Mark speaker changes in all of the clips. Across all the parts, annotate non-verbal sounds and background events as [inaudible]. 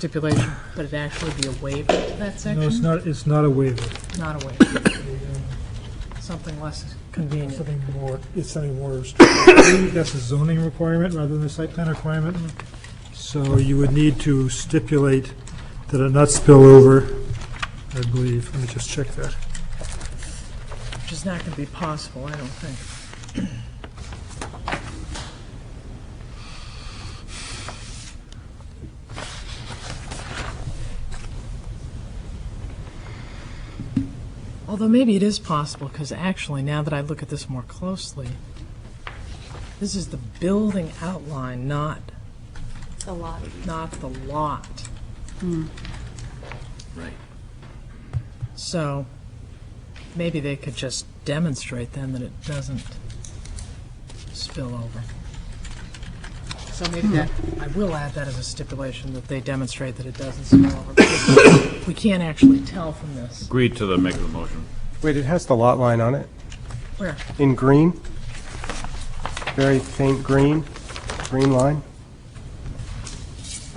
Speaker 1: stipulation, but it'd actually be a waiver to that
Speaker 2: No, it's
Speaker 1: section,
Speaker 2: not, it's not a waiver.
Speaker 1: not a waiver, something less
Speaker 2: It's
Speaker 1: convenient.
Speaker 2: Something more, it's something more, strict. [coughs] that's a zoning requirement rather than a site plan requirement. So you would need to stipulate that it not spill over, I believe. Let me just check that.
Speaker 1: Which is not going to be possible, I don't think. Although maybe it is possible, because actually, now that I look at this more closely, this is the building outline, not,
Speaker 3: A lot.
Speaker 1: not the lot.
Speaker 4: Right.
Speaker 1: So maybe they could just demonstrate then that it doesn't spill over. So maybe that, I will add that as a stipulation, that they demonstrate that it doesn't spill over. because We can't actually tell from this.
Speaker 4: Agreed to the make of the motion.
Speaker 5: Wait, it has the lot line on it,
Speaker 1: Where?
Speaker 5: in green, very faint green, green line.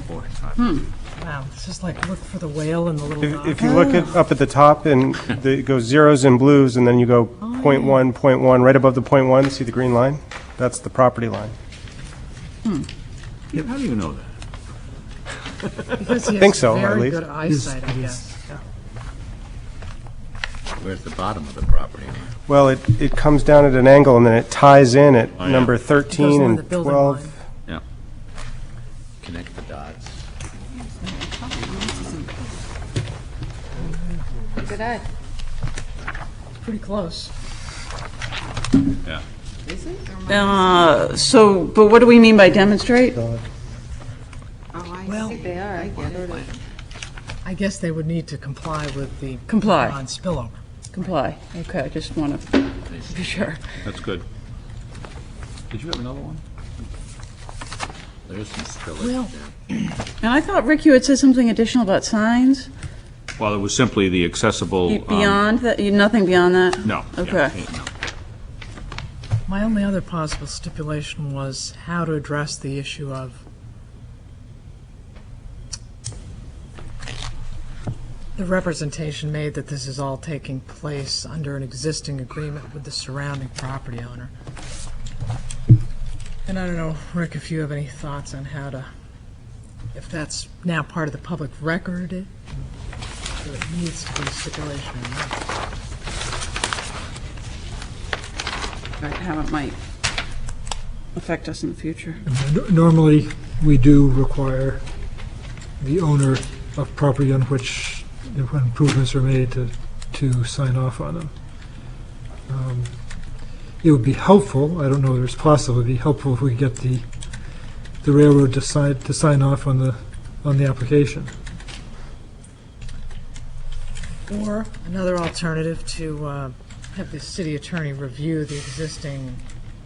Speaker 4: Boy,
Speaker 1: Wow, it's just like, look for the whale in the little
Speaker 5: If
Speaker 1: dot.
Speaker 5: if you look at, up at the top, and the- it goes zeros and blues, and then you go point one, point one, right above the point one, see the green line? That's the property line.
Speaker 4: How do you know that?
Speaker 1: Because he has
Speaker 5: think so, at
Speaker 1: Very
Speaker 5: least.
Speaker 1: good eyesight, I guess.
Speaker 4: Where's the bottom of the property?
Speaker 5: Well, it, it comes down at an angle, and then it ties in at
Speaker 4: yeah.
Speaker 5: number
Speaker 1: Goes
Speaker 5: 13
Speaker 1: along the
Speaker 5: and
Speaker 1: building
Speaker 5: 12.
Speaker 1: line.
Speaker 4: Yeah. Connect the dots.
Speaker 3: Good eye.
Speaker 1: Pretty close.
Speaker 4: Yeah.
Speaker 6: Uh, So, but what do we mean by demonstrate?
Speaker 3: Oh, I
Speaker 1: Well-
Speaker 3: think they are, I get it.
Speaker 1: I guess they would need to comply with the.
Speaker 6: Comply.
Speaker 1: Non-spillover.
Speaker 6: Comply. Okay, I just want to be sure.
Speaker 4: That's good. Did you have another one? There's some
Speaker 1: Well-
Speaker 4: spillage there.
Speaker 6: And I thought, Rick, you had said something additional about signs
Speaker 4: Well, it was simply the accessible.
Speaker 6: Be-
Speaker 4: um,
Speaker 6: beyond that, you- nothing beyond that?
Speaker 4: No. yeah,
Speaker 6: Okay.
Speaker 4: yeah, no.
Speaker 1: My only other possible stipulation was how to address the issue of the representation made that this is all taking place under an existing agreement with the surrounding property owner. And I don't know, Rick, if you have any thoughts on how to, if that's now part of the public record, it- or it needs to be a stipulation or not.
Speaker 6: Right, How it might affect us in the future.
Speaker 2: No- Normally, we do require the owner of property on which improvements are made to, to sign off on them. Um, It would be helpful, I don't know if it's possible, it'd be helpful if we could get the, the railroad to sign, to sign off on the, on the application.
Speaker 1: Or another alternative to uh, have the city attorney review the existing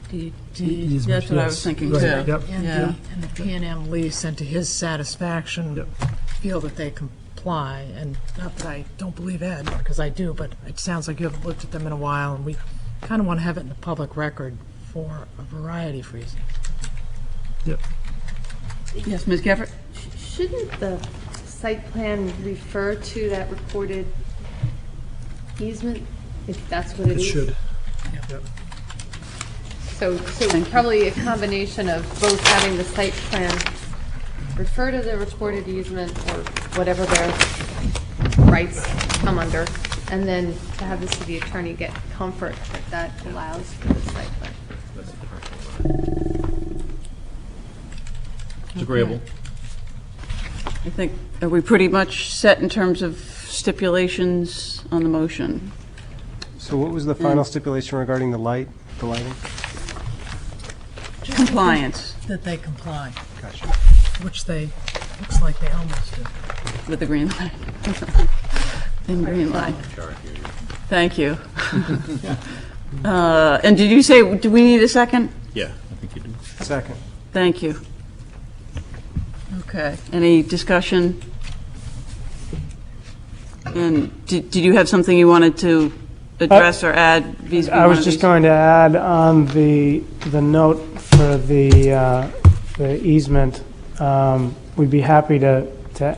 Speaker 1: deed
Speaker 2: Easement,
Speaker 6: That's what I was
Speaker 2: yes.
Speaker 6: thinking,
Speaker 2: Right,
Speaker 6: too.
Speaker 2: Yep.
Speaker 1: and
Speaker 6: Yeah.
Speaker 1: the- and the P and M lease, and to his satisfaction, feel that they comply, and not that I don't believe Ed, because I do, but it sounds like you haven't looked at them in a while, and we kind of want to have it in the public record for a variety of reasons.
Speaker 6: Yes, Ms. Gafford?
Speaker 3: Shouldn't the site plan refer to that recorded easement, if that's what
Speaker 2: It
Speaker 3: it is?
Speaker 2: should.
Speaker 3: So, so probably a combination of both having the site plan refer to the recorded easement or whatever their rights come under, and then to have the city attorney get comfort that that allows for the site plan.
Speaker 4: It's agreeable.
Speaker 6: I think, are we pretty much set in terms of stipulations on the motion?
Speaker 5: So what was the final stipulation regarding the light, the lighting?
Speaker 6: Compliance
Speaker 1: That they comply,
Speaker 5: Gotcha.
Speaker 1: which they, looks like they almost do.
Speaker 6: with the green [laughs] line. And green line. Thank you. Uh, And did you [laughs] say, do we need a second?
Speaker 4: Yeah, I think you do.
Speaker 5: Second.
Speaker 6: Thank you. Okay, any discussion? And did did you have something you wanted to address or add vis-
Speaker 7: Uh, I
Speaker 6: one of
Speaker 7: was just
Speaker 6: these?
Speaker 7: going to add on the, the note for the, uh, the easement, um, we'd be happy to to